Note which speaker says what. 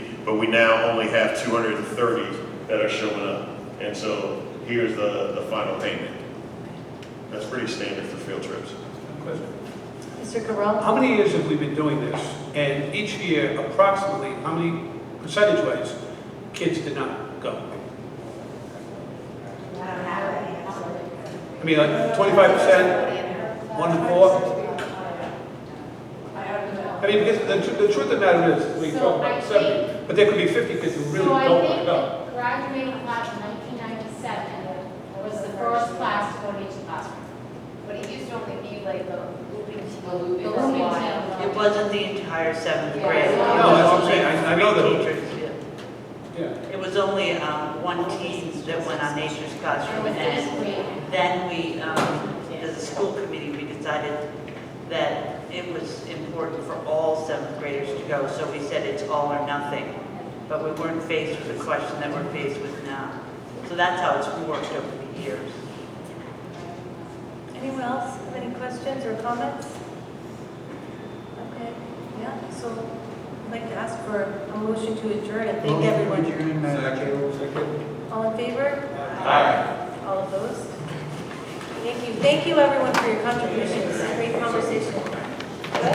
Speaker 1: but we now only have two hundred and thirty that are showing up. And so here's the, the final payment. That's pretty standard for field trips.
Speaker 2: Mr. Correll?
Speaker 3: How many years have we been doing this? And each year approximately, how many percentage-wise, kids did not go? I mean, like twenty-five percent, one to four? I mean, because the, tr- the truth of the matter is, we
Speaker 4: So
Speaker 3: talk
Speaker 4: I
Speaker 3: about
Speaker 4: think-
Speaker 3: seven, but there could be fifty kids who really
Speaker 4: So I
Speaker 3: don't want to
Speaker 4: think
Speaker 3: go.
Speaker 4: the graduating class in 1997 was the first class to go to each classroom.
Speaker 5: But it used to only be like the looping team.
Speaker 6: The looping.
Speaker 5: The looping
Speaker 6: It
Speaker 5: team. It
Speaker 7: It
Speaker 5: was
Speaker 7: wasn't the entire seventh
Speaker 5: Yeah.
Speaker 7: grade. It
Speaker 5: No,
Speaker 7: was
Speaker 3: that's what I'm
Speaker 7: only
Speaker 3: saying. I- I know
Speaker 7: three
Speaker 3: that.
Speaker 7: teachers, yeah.
Speaker 3: Yeah.
Speaker 7: It was only um, one team that went on nature's classroom. And then-
Speaker 5: disagreeing.
Speaker 7: then we, um, as a school committee, we decided that it was important for all seventh graders to go. So we said it's all or nothing. But we weren't faced with the question that we're faced with now. So that's how it's worked over the years.
Speaker 2: Anyone else have any questions or comments? Okay, yeah, so I'd like to ask for a motion to adjourn and thank everyone. All in favor? Aye. All opposed? Thank you. Thank you, everyone, for your contributions. Great conversation.